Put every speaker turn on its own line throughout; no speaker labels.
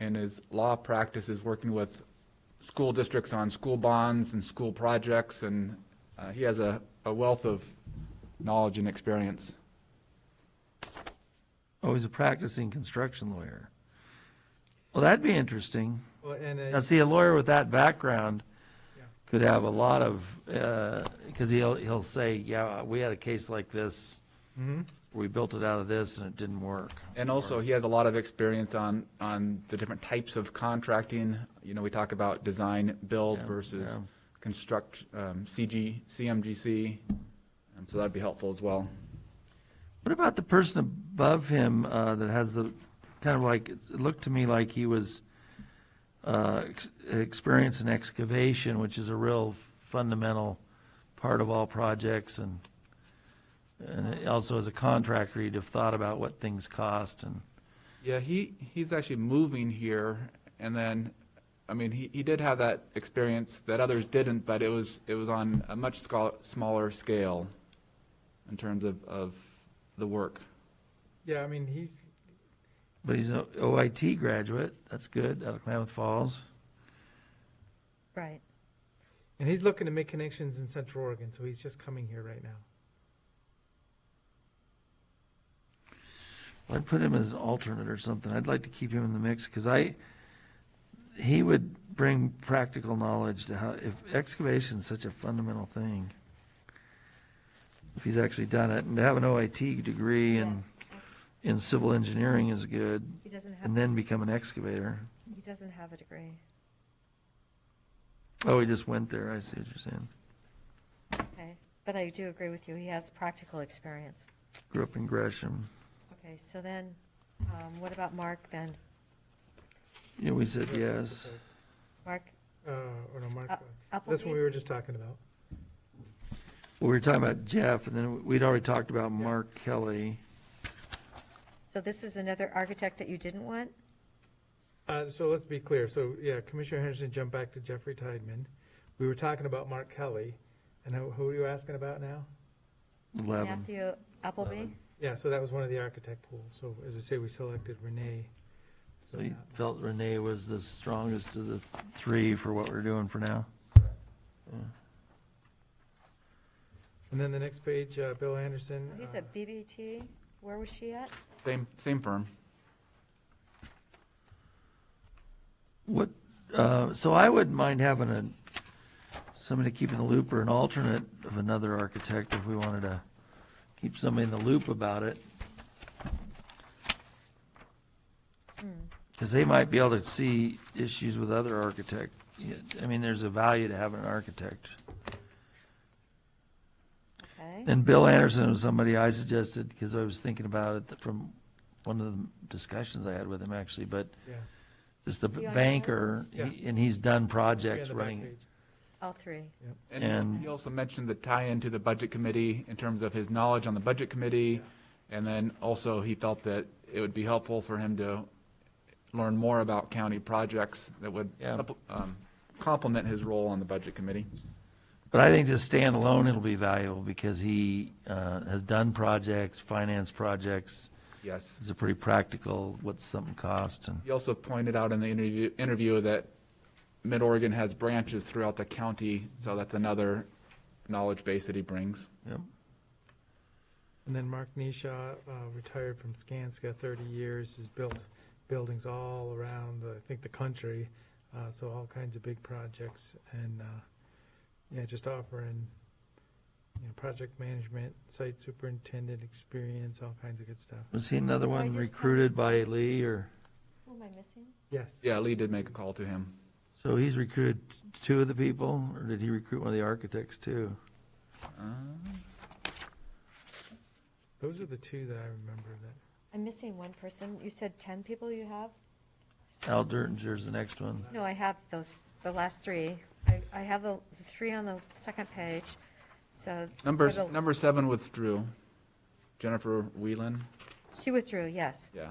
and his law practice is working with school districts on school bonds and school projects, and uh, he has a a wealth of knowledge and experience.
Oh, he's a practicing construction lawyer. Well, that'd be interesting.
Well, and
Now,
uh,
see, a lawyer with that background could have a lot of, because he'll, he'll say, yeah, we had a case like this.
Mm-hmm.
We built it out of this and it didn't work.
And also, he has a lot of experience on, on the different types of contracting. You know, we talk about design, build
Yeah,
versus
yeah.
construct, um, CG, CMGC. Um, So that'd be helpful as well.
What about the person above him uh, that has the, kind of like, it looked to me like he was uh, ex- experienced in excavation, which is a real fundamental part of all projects and, and also as a contractor, you'd have thought about what things cost and,
Yeah, he, he's actually moving here, and then, I mean, he, he did have that experience that others didn't, but it was, it was on a much scal- smaller scale in terms of, of the work.
yeah, I mean, he's,
But he's an OIT graduate. That's good out of Klamath Falls.
Right.
and he's looking to make connections in Central Oregon, so he's just coming here right now.
I'd put him as an alternate or something. I'd like to keep him in the mix because I, he would bring practical knowledge to how, if excavation's such a fundamental thing. If he's actually done it and to have an OIT degree in, in civil engineering is good
He doesn't have,
and then become an excavator.
he doesn't have a degree.
Oh, he just went there. I see what you're saying.
Okay. But I do agree with you. He has practical experience.
Grew up in Gresham.
Okay, so then, um, what about Mark then?
Yeah, we said yes.
Mark
Uh, or no, Mark.
Uh,
That's what we
Appleby?
were just talking about.
Well, we were talking about Jeff and then we'd already talked about Mark Kelly.
So this is another architect that you didn't want?
Uh, so let's be clear. So, yeah, Commissioner Henderson jumped back to Jeffrey Tideman. We were talking about Mark Kelly, and who, who are you asking about now?
Eleven.
Matthew Appleby?
Yeah, so that was one of the architect pool. So as I say, we selected Renee.
So you felt Renee was the strongest of the three for what we're doing for now?
And then the next page, uh, Bill Anderson.
So he's
uh,
at BBT. Where was she at?
Same, same firm.
What, uh, so I wouldn't mind having a, somebody to keep in the loop or an alternate of another architect if we wanted to keep somebody in the loop about it. Because they might be able to see issues with other architect. Yeah, I mean, there's a value to having an architect.
Okay.
And Bill Anderson was somebody I suggested, because I was thinking about it from one of the discussions I had with him, actually, but
yeah,
just the
Is he on
banker,
yours?
he- and he's done
yeah, the
projects
back
running.
page.
All three.
And
And-
he also mentioned the tie-in to the Budget Committee in terms of his knowledge on the Budget Committee. And then also, he felt that it would be helpful for him to learn more about county projects that would
Yeah.
supple- um, complement his role on the Budget Committee.
But I think just standalone, it'll be valuable, because he uh, has done projects, financed projects,
Yes.
is a pretty practical, what's something cost, and,
He also pointed out in the interview, interview that Mid-Oregon has branches throughout the county, so that's another knowledge base that he brings.
yep.
And then Mark Nisha, uh, retired from Skanska, thirty years, has built buildings all around, the- I think, the country. Uh, so all kinds of big projects and, uh, yeah, just offering, you know, project management, site superintendent experience, all kinds of good stuff.
Was he another
So I
one
just-
recruited by Lee, or,
Who am I missing?
Yes.
Yeah, Lee did make a call to him.
so he's recruited two of the people, or did he recruit one of the architects, too?
Those are the two that I remember that.
I'm missing one person. You said 10 people you have?
Al Dertinger's the next one.
No, I have those, the last three. I, I have the the three on the second page, so.
Number,
for the-
number seven withdrew. Jennifer Whelan,
She withdrew, yes.
yeah.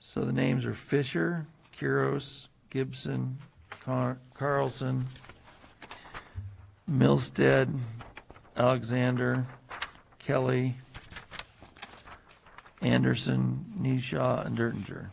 So the names are Fisher, Kuros, Gibson, Car- Carlson, Milstead, Alexander, Kelly, Anderson, Nisha, and Dertinger.